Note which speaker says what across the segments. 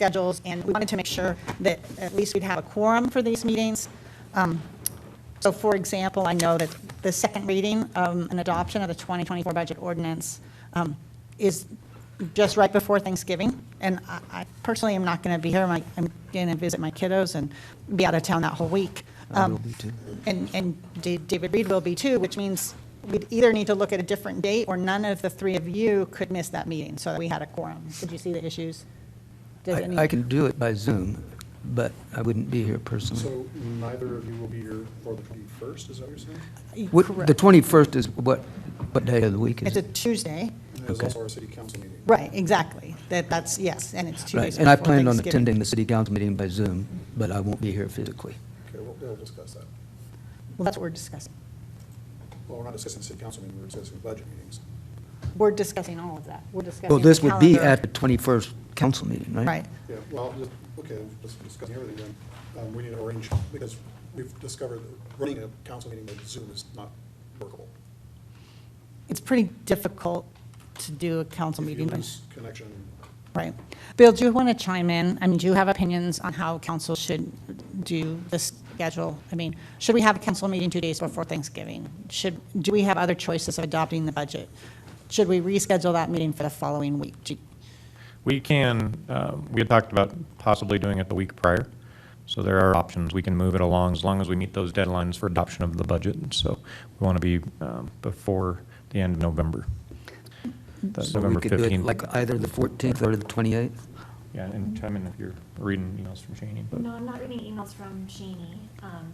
Speaker 1: schedules, and we wanted to make sure that at least we'd have a quorum for these meetings. Um, So for example, I know that the second reading um, and adoption of the 2024 budget ordinance um, is just right before Thanksgiving, and I- I personally am not going to be here. My- I'm going to visit my kiddos and be out of town that whole week.
Speaker 2: I
Speaker 1: Um,
Speaker 2: will be too.
Speaker 1: And, and Da- David Reed will be too, which means we'd either need to look at a different date, or none of the three of you could miss that meeting, so that we had a quorum. Did you see the issues? Does
Speaker 2: I
Speaker 1: any-
Speaker 2: I can do it by Zoom, but I wouldn't be here personally.
Speaker 3: So neither of you will be here for the 21st, is that what you're saying?
Speaker 2: What- The
Speaker 1: Correct.
Speaker 2: 21st is what, what day of the week is
Speaker 1: It's a
Speaker 2: it?
Speaker 1: Tuesday.
Speaker 3: And there's
Speaker 2: Okay.
Speaker 3: also our city council meeting.
Speaker 1: Right, exactly. That, that's, yes, and it's two
Speaker 2: Right,
Speaker 1: days
Speaker 2: and I
Speaker 1: before
Speaker 2: planned on
Speaker 1: Thanksgiving.
Speaker 2: attending the city council meeting by Zoom, but I won't be here physically.
Speaker 3: Okay, we'll, we'll discuss that.
Speaker 1: Well, that's what we're discussing.
Speaker 3: Well, we're not discussing city council meeting, we're discussing budget meetings.
Speaker 1: We're discussing all of that. We're discussing.
Speaker 2: Well, this
Speaker 1: the
Speaker 2: would be at
Speaker 1: calendar.
Speaker 2: the 21st council meeting, right?
Speaker 1: Right.
Speaker 3: Yeah, well, just, okay, let's discuss everything then. Um, we need to arrange, because we've discovered that running a council meeting by Zoom is not workable.
Speaker 1: It's pretty difficult to do a council
Speaker 3: If you
Speaker 1: meeting, but-
Speaker 3: lose Connection,
Speaker 1: right. Bill, do you want to chime in? I mean, do you have opinions on how council should do the schedule? I mean, should we have a council meeting two days before Thanksgiving? Should, do we have other choices of adopting the budget? Should we reschedule that meeting for the following week? Do-
Speaker 4: We can, uh, we had talked about possibly doing it the week prior, so there are options. We can move it along as long as we meet those deadlines for adoption of the budget. So we want to be um, before the end of November. The
Speaker 2: So we
Speaker 4: November
Speaker 2: could do it
Speaker 4: 15th.
Speaker 2: like uh, either the 14th or the 28th?
Speaker 4: Yeah, and chime in if you're reading emails from Shaney. but-
Speaker 5: No, I'm not reading emails from Shaney. Um,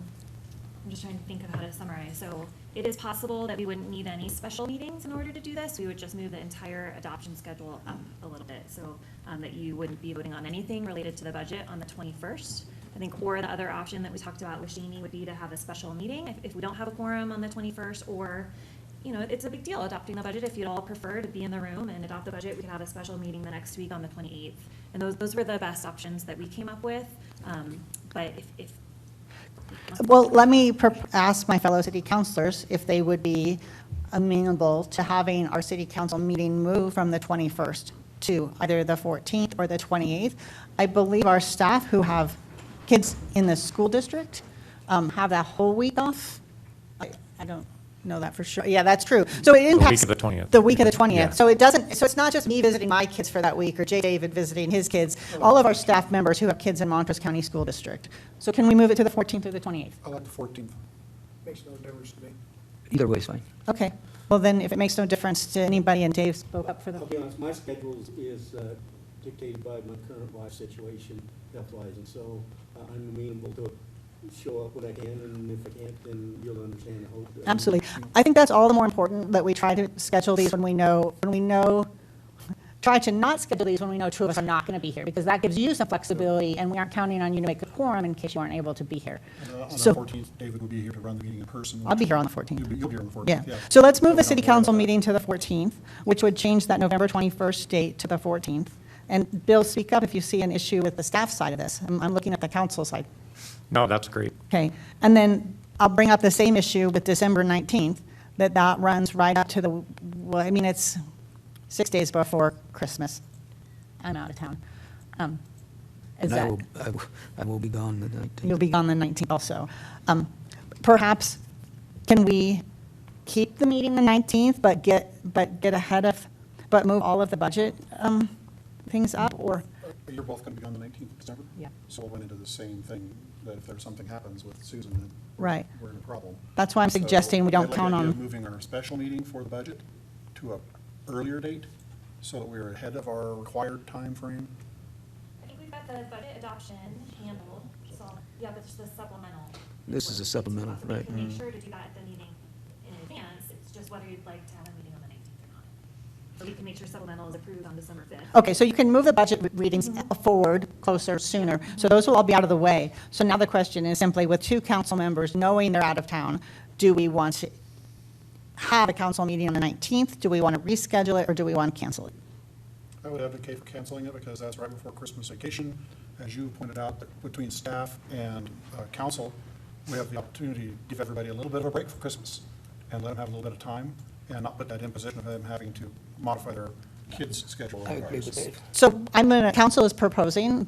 Speaker 5: I'm just trying to think of how to summarize. So it is possible that we wouldn't need any special meetings in order to do this. We would just move the entire adoption schedule up a little bit. So um, that you wouldn't be voting on anything related to the budget on the 21st. I think, or the other option that we talked about with Shaney would be to have a special meeting if, if we don't have a quorum on the 21st or, you know, it's a big deal adopting the budget. If you'd all prefer to be in the room and adopt the budget, we can have a special meeting the next week on the 28th. And those, those were the best options that we came up with. Um, But if, if.
Speaker 1: Well, let me prop- ask my fellow city councilors if they would be amenable to having our city council meeting move from the 21st to either the 14th or the 28th. I believe our staff who have kids in the school district um, have that whole week off. I I don't know that for sure. Yeah, that's true. So it
Speaker 4: week
Speaker 1: impacts.
Speaker 4: of the 20th.
Speaker 1: The week of the 20th.
Speaker 4: Yeah.
Speaker 1: So it doesn't, so it's not just me visiting my kids for that week, or Jay David visiting his kids, all of our staff members who have kids in Montrose County School District. So can we move it to the 14th or the 28th?
Speaker 3: I like the 14th. Makes no difference to me.
Speaker 2: Either way is fine.
Speaker 1: Okay, well then, if it makes no difference to anybody, and Dave spoke up for
Speaker 6: I'll
Speaker 1: the,
Speaker 6: be honest, my schedule is- is uh, dictated by my current life situation, health-wise, and so uh, I'm amenable to show up when I can, and if I can't, then you'll understand, I hope.
Speaker 1: absolutely. I think that's all the more important, that we try to schedule these when we know, when we know, try to not schedule these when we know two of us are not going to be here, because that gives you some flexibility, and we aren't counting on you to make a quorum in case you aren't able to be here.
Speaker 3: Uh, On the
Speaker 1: So,
Speaker 3: 14th, David will be here to run the meeting in person.
Speaker 1: I'll be
Speaker 3: which-
Speaker 1: here on the 14th.
Speaker 3: You'll be, you'll be here on the 14th,
Speaker 1: yeah.
Speaker 3: yeah.
Speaker 1: So let's move
Speaker 3: we
Speaker 1: the
Speaker 3: don't
Speaker 1: city
Speaker 3: worry about
Speaker 1: council
Speaker 3: that.
Speaker 1: meeting to the 14th, which would change that November 21st date to the 14th. And Bill, speak up if you see an issue with the staff side of this. I'm, I'm looking at the council side.
Speaker 4: No, that's great.
Speaker 1: Okay, and then I'll bring up the same issue with December 19th, that that runs right up to the, well, I mean, it's six days before Christmas. I'm out of town. Um, Is
Speaker 2: And I
Speaker 1: that,
Speaker 2: will, I will- I will be gone the 19th.
Speaker 1: you'll be gone the 19th also. Um, Perhaps, can we keep the meeting the 19th, but get, but get ahead of, but move all of the budget um, things up, or?
Speaker 3: Uh, You're both going to be on the 19th of December?
Speaker 1: Yeah.
Speaker 3: So we'll run into the same thing, that if there's something happens with Susan, then
Speaker 1: Right.
Speaker 3: we're in a problem.
Speaker 1: That's why I'm
Speaker 3: So
Speaker 1: suggesting we
Speaker 3: I
Speaker 1: don't
Speaker 3: like the
Speaker 1: count
Speaker 3: idea of
Speaker 1: on-
Speaker 3: Moving our special meeting for the budget to a earlier date, so that we're ahead of our required timeframe.
Speaker 5: I think we've got the budget adoption handled, so, yeah, but just the supplemental.
Speaker 2: This is a supplemental, right. Mm-hmm.
Speaker 5: We can make sure to do that at the meeting in advance, it's just whether you'd like to have a meeting on the nineteenth or not. But we can make sure supplemental is approved on December fifth.
Speaker 1: Okay, so you can move the budget re- readings forward, closer, sooner, so those will all be out of the way. So now the question is simply, with two council members knowing they're out of town, do we want to have a council meeting on the 19th? Do we want to reschedule it, or do we want to cancel it?
Speaker 3: I would advocate for canceling it, because that's right before Christmas vacation. As you pointed out, that between staff and uh, council, we have the opportunity to give everybody a little bit of a break for Christmas, and let them have a little bit of time, and not put that imposition of them having to modify their kids' schedule.
Speaker 2: I agree
Speaker 3: otherwise.
Speaker 2: with that.
Speaker 1: So I'm going to, council is proposing